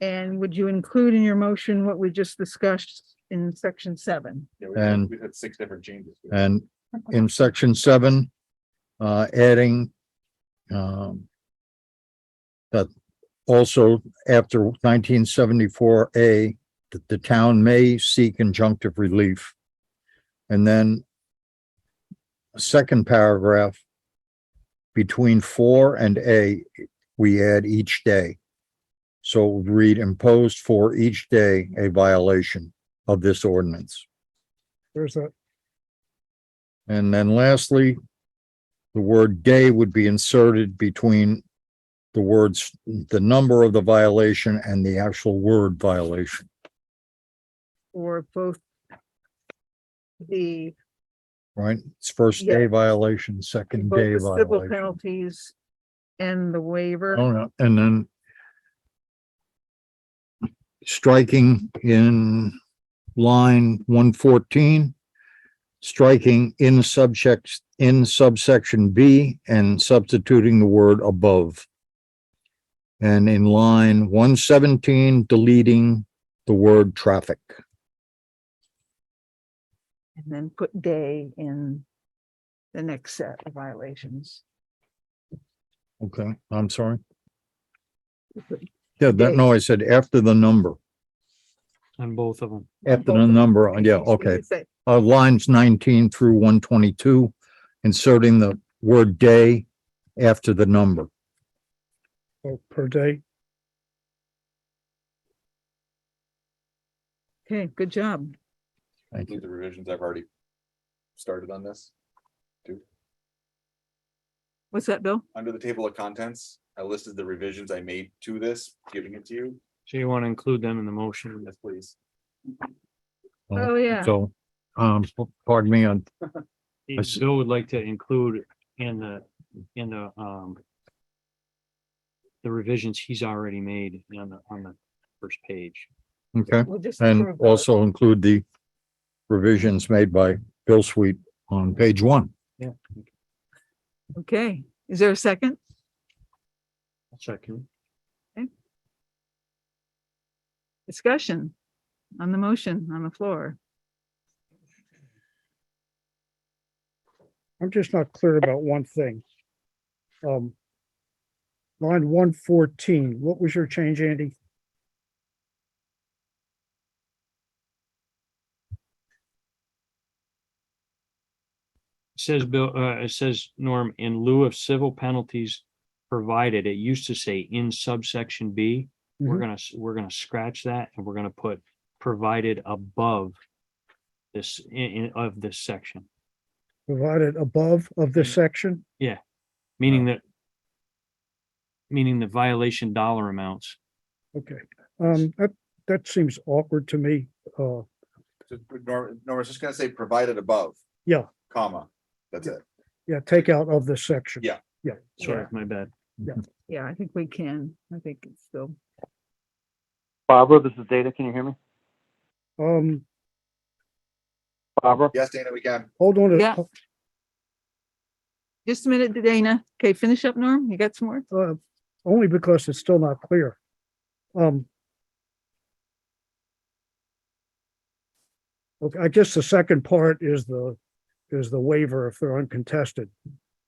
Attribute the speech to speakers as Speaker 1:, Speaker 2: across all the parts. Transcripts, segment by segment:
Speaker 1: And would you include in your motion what we just discussed in section seven?
Speaker 2: Yeah, we've had-
Speaker 3: And- Uh,
Speaker 2: We've had six different changes.
Speaker 3: And in section seven, uh, adding, um, that also after nineteen seventy-four A, that the town may seek injunctive relief. And then second paragraph, between four and A, we add each day. So it would read imposed for each day a violation of this ordinance.
Speaker 4: There's a,
Speaker 3: And then lastly, the word day would be inserted between the words, the number of the violation and the actual word violation.
Speaker 1: Or both? The,
Speaker 3: Right? It's first day violation, second day
Speaker 1: both the civil
Speaker 3: violation.
Speaker 1: penalties and the waiver,
Speaker 3: Oh, no, And then striking in line one fourteen, striking in subjects, in subsection B and substituting the word above. And in line one seventeen, deleting the word traffic.
Speaker 1: and then put day in the next set of violations.
Speaker 3: Okay, I'm sorry. Yeah, that, no, I said after the number,
Speaker 5: on both of them.
Speaker 3: after the number, yeah, okay. uh, lines nineteen through one twenty-two, inserting the word day after the number.
Speaker 4: oh, per day,
Speaker 1: Okay, good job.
Speaker 3: Thank you.
Speaker 2: Include the revisions I've already started on this.
Speaker 1: What's that, Bill?
Speaker 2: Under the table of contents, I listed the revisions I made to this, giving it to you.
Speaker 5: So you want to include them in the motion.
Speaker 2: Yes, please.
Speaker 1: Oh, yeah.
Speaker 3: So, um, pardon me on, I see.
Speaker 5: Bill would like to include in the, in the, um, the revisions he's already made on the, on the first page.
Speaker 3: okay,
Speaker 1: We'll just
Speaker 3: and
Speaker 1: approve those.
Speaker 3: also include the revisions made by Bill Sweet on page one.
Speaker 1: Okay, is there a second?
Speaker 5: Second.
Speaker 1: Discussion on the motion on the floor.
Speaker 4: I'm just not clear about one thing. Um. Line one fourteen, what was your change, Andy?
Speaker 5: Says Bill, uh, it says, Norm, in lieu of civil penalties provided, it used to say in subsection B. We're
Speaker 4: Mhm.
Speaker 5: gonna, s- we're gonna scratch that and we're gonna put provided above this, in, in, of this section.
Speaker 4: Provided above of this section?
Speaker 5: Meaning that. Meaning the violation dollar amounts.
Speaker 4: Okay, um, that, that seems awkward to me. Uh,
Speaker 2: Just- Nor, Nor, it's just gonna say provided above.
Speaker 4: Yeah.
Speaker 2: Comma, that's it.
Speaker 4: yeah, take out of this section.
Speaker 2: Yeah.
Speaker 4: Yeah.
Speaker 5: Sorry, my bad.
Speaker 1: Yeah, I think we can. I think it's still.
Speaker 6: Barbara, this is Data. Can you hear me?
Speaker 4: Um,
Speaker 6: Barbara?
Speaker 2: Yes, Dana, we can.
Speaker 4: hold on.
Speaker 1: Yeah.
Speaker 4: a-
Speaker 1: Just a minute, Dana. Okay, finish up, Norm. You got some more?
Speaker 4: uh, only because it's still not clear. Um. Okay, I guess the second part is the, is the waiver if they're uncontested.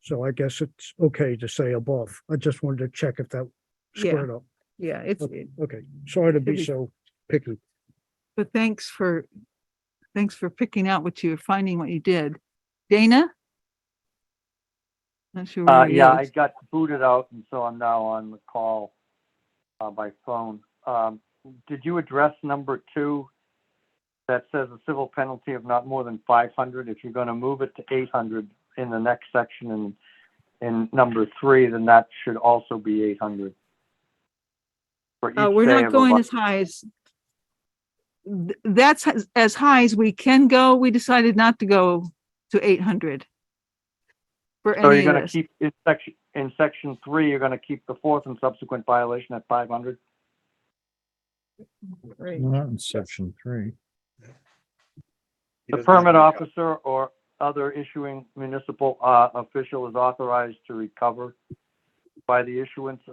Speaker 4: So I guess it's okay to say above. I just wanted to check if that
Speaker 1: Yeah.
Speaker 4: squared up.
Speaker 1: Yeah, it's, it-
Speaker 4: Okay, sorry to be
Speaker 1: Should be-
Speaker 4: so picky.
Speaker 1: but thanks for, thanks for picking out what you, finding what you did. Dana? Not sure.
Speaker 6: Uh,
Speaker 1: where he
Speaker 6: yeah, I
Speaker 1: is.
Speaker 6: got booted out and so I'm now on the call uh, by phone. Um, did you address number two? That says a civil penalty of not more than five hundred. If you're gonna move it to eight hundred in the next section and in number three, then that should also be eight hundred.
Speaker 1: Uh, we're not going as high as. Th- That's as- as high as we can go. We decided not to go to eight hundred. For
Speaker 6: So you're
Speaker 1: any of
Speaker 6: gonna
Speaker 1: this.
Speaker 6: keep, in section, in section three, you're gonna keep the fourth and subsequent violation at five hundred?
Speaker 1: Right.
Speaker 3: Not in section three.
Speaker 2: He
Speaker 6: The
Speaker 2: doesn't have to
Speaker 6: permit
Speaker 2: be-
Speaker 6: officer or other issuing municipal uh, official is authorized to recover by the issuance